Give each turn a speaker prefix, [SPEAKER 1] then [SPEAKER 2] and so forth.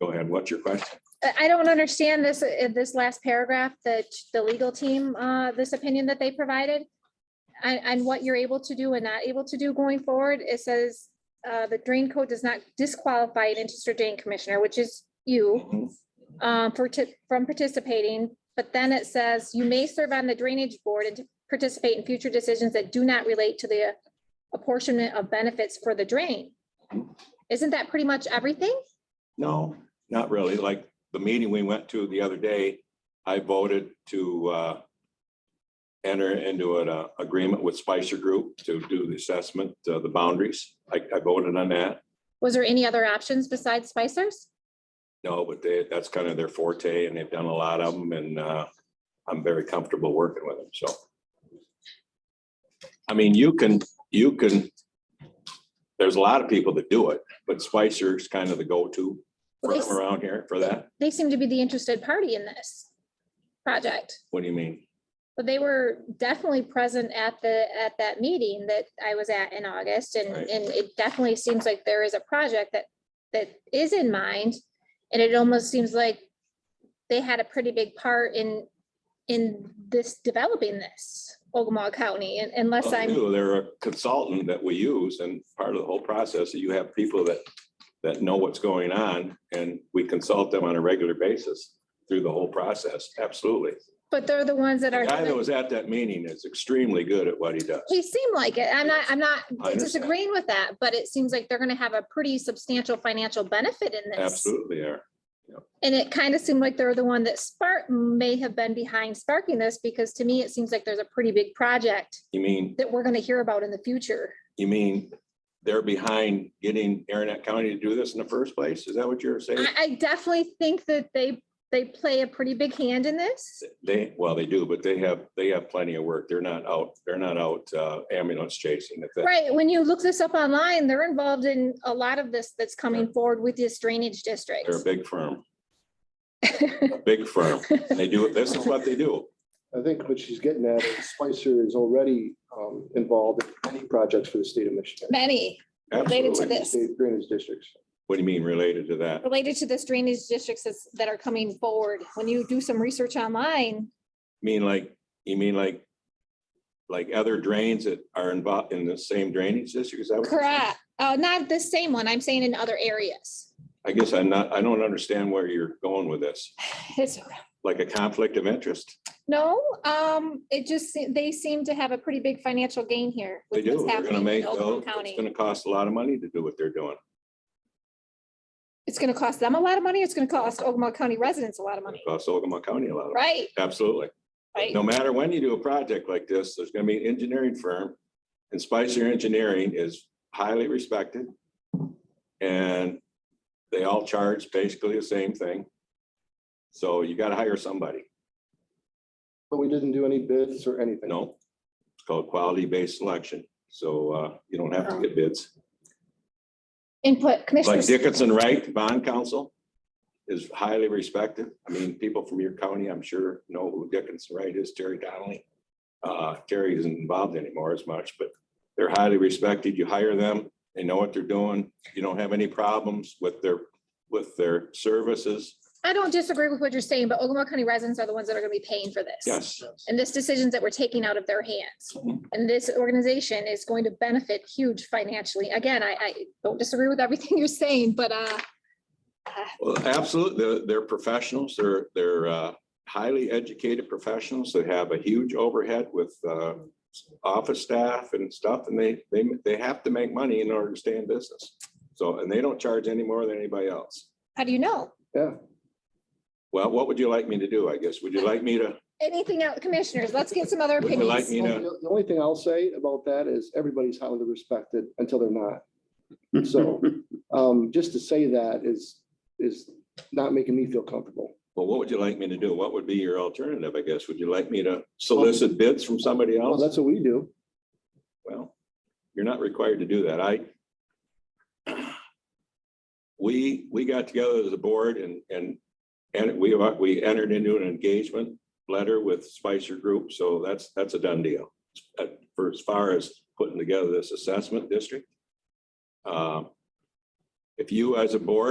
[SPEAKER 1] Go ahead. What's your question?
[SPEAKER 2] I I don't understand this, uh, this last paragraph, that the legal team, uh, this opinion that they provided. And, and what you're able to do and not able to do going forward, it says, uh, the drain code does not disqualify an interested drain commissioner, which is you,
[SPEAKER 1] Mm-hmm.
[SPEAKER 2] uh, for, ti- from participating. But then it says, you may serve on the drainage board and participate in future decisions that do not relate to the apportionment of benefits for the drain. Isn't that pretty much everything?
[SPEAKER 1] No, not really. Like the meeting we went to the other day, I voted to uh, enter into an uh, agreement with Spicer Group to do the assessment, uh, the boundaries. I I voted on that.
[SPEAKER 2] Was there any other options besides Spicer's?
[SPEAKER 1] No, but they, that's kind of their forte and they've done a lot of them and uh, I'm very comfortable working with them, so. I mean, you can, you can, there's a lot of people that do it, but Spicer's kind of the go-to for-
[SPEAKER 2] Yes.
[SPEAKER 1] around here for that.
[SPEAKER 2] They seem to be the interested party in this project.
[SPEAKER 1] What do you mean?
[SPEAKER 2] But they were definitely present at the, at that meeting that I was at in August and,
[SPEAKER 1] Right.
[SPEAKER 2] and it definitely seems like there is a project that, that is in mind. And it almost seems like they had a pretty big part in, in this, developing this, Ogama County, and unless
[SPEAKER 1] Well, they
[SPEAKER 2] I'm,
[SPEAKER 1] do. They're a consultant that we use and part of the whole process, that you have people that, that know what's going on and we consult them on a regular basis through the whole process, absolutely.
[SPEAKER 2] but they're the ones that
[SPEAKER 1] The
[SPEAKER 2] are.
[SPEAKER 1] guy that was at that meeting is extremely good at what he does.
[SPEAKER 2] He seemed like it. I'm not, I'm not
[SPEAKER 1] I understand.
[SPEAKER 2] disagreeing with that, but it seems like they're gonna have a pretty substantial financial benefit in this.
[SPEAKER 1] Absolutely are.
[SPEAKER 2] And it kind of seemed like they're the one that spark may have been behind sparking this, because to me, it seems like there's a pretty big project
[SPEAKER 1] You mean,
[SPEAKER 2] that we're gonna hear about in the future.
[SPEAKER 1] you mean they're behind getting Aranet County to do this in the first place? Is that what you're saying?
[SPEAKER 2] I, I definitely think that they, they play a pretty big hand in this.
[SPEAKER 1] They, well, they do, but they have, they have plenty of work. They're not out, they're not out uh, ambulance chasing. If that-
[SPEAKER 2] Right, when you look this up online, they're involved in a lot of this that's coming forward with this drainage district.
[SPEAKER 1] They're a big firm, a big firm. And they do, this is what they do.
[SPEAKER 3] I think what she's getting at, is Spicer is already um, involved in many projects for the state of Michigan.
[SPEAKER 2] Many related to
[SPEAKER 1] Absolutely.
[SPEAKER 2] this.
[SPEAKER 3] State drainage districts.
[SPEAKER 1] What do you mean related to that?
[SPEAKER 2] related to this drainage districts that's- that are coming forward, when you do some research online,
[SPEAKER 1] Mean like, you mean like, like other drains that are involved in the same drainage district? Is that what you're saying?
[SPEAKER 2] correct, uh, not the same one, I'm saying in other areas.
[SPEAKER 1] I guess I'm not, I don't understand where you're going with this,
[SPEAKER 2] It's,
[SPEAKER 1] like a conflict of interest.
[SPEAKER 2] no, um, it just, se- they seem to have a pretty big financial gain here.
[SPEAKER 1] They
[SPEAKER 2] with
[SPEAKER 1] do.
[SPEAKER 2] what's
[SPEAKER 1] They're gonna
[SPEAKER 2] happening
[SPEAKER 1] make, oh,
[SPEAKER 2] in Oakland
[SPEAKER 1] it's
[SPEAKER 2] County.
[SPEAKER 1] gonna cost a lot of money to do what they're doing.
[SPEAKER 2] It's gonna cost them a lot of money, it's gonna cost Ogama County residents a lot
[SPEAKER 1] It
[SPEAKER 2] of money,
[SPEAKER 1] costs Ogama County a lot of,
[SPEAKER 2] right?
[SPEAKER 1] absolutely.
[SPEAKER 2] Right,
[SPEAKER 1] No matter when you do a project like this, there's gonna be an engineering firm. And Spicer Engineering is highly respected. And they all charge basically the same thing. So you gotta hire somebody.
[SPEAKER 3] But we didn't do any bids or anything.
[SPEAKER 1] No, it's called quality-based selection. So, uh, you don't have to get bids.
[SPEAKER 2] input,
[SPEAKER 1] Like
[SPEAKER 2] commissioners,
[SPEAKER 1] Dickinson Wright, bond counsel is highly respected. I mean, people from your county, I'm sure, know who Dickinson Wright is, Terry Donnelly. Uh, Terry isn't involved anymore as much, but they're highly respected. You hire them, they know what they're doing. You don't have any problems with their, with their services.
[SPEAKER 2] I don't disagree with what you're saying, but Ogama County residents are the ones that are gonna be paying for this.
[SPEAKER 1] Yes,
[SPEAKER 2] And this decisions that we're taking out of their hands.
[SPEAKER 1] Mhm.
[SPEAKER 2] And this organization is going to benefit huge financially. Again, I, I don't disagree with everything you're saying, but, uh,
[SPEAKER 1] well, absolutely. They're, they're professionals. They're, they're, uh, highly educated professionals that have a huge overhead with, uh, office staff and stuff, and they, they, they have to make money in order to stay in business. So, and they don't charge any more than anybody else.
[SPEAKER 2] how do you know?
[SPEAKER 3] Yeah,
[SPEAKER 1] Well, what would you like me to do, I guess? Would you like me to,
[SPEAKER 2] Anything else, commissioners, let's get some other
[SPEAKER 1] would you like me
[SPEAKER 2] opinions.
[SPEAKER 1] to?
[SPEAKER 3] the only thing I'll say about that is everybody's highly respected until they're not. So um, just to say that is, is not making me feel comfortable.
[SPEAKER 1] Well, what would you like me to do? What would be your alternative, I guess? Would you like me to solicit bids from somebody
[SPEAKER 3] Well,
[SPEAKER 1] else?
[SPEAKER 3] that's what we do.
[SPEAKER 1] Well, you're not required to do that. I. We, we got together as a board and, and, and we, we entered into an engagement letter with Spicer Group, so that's, that's a done deal. Uh, For as far as putting together this assessment district. Uh, If you as a board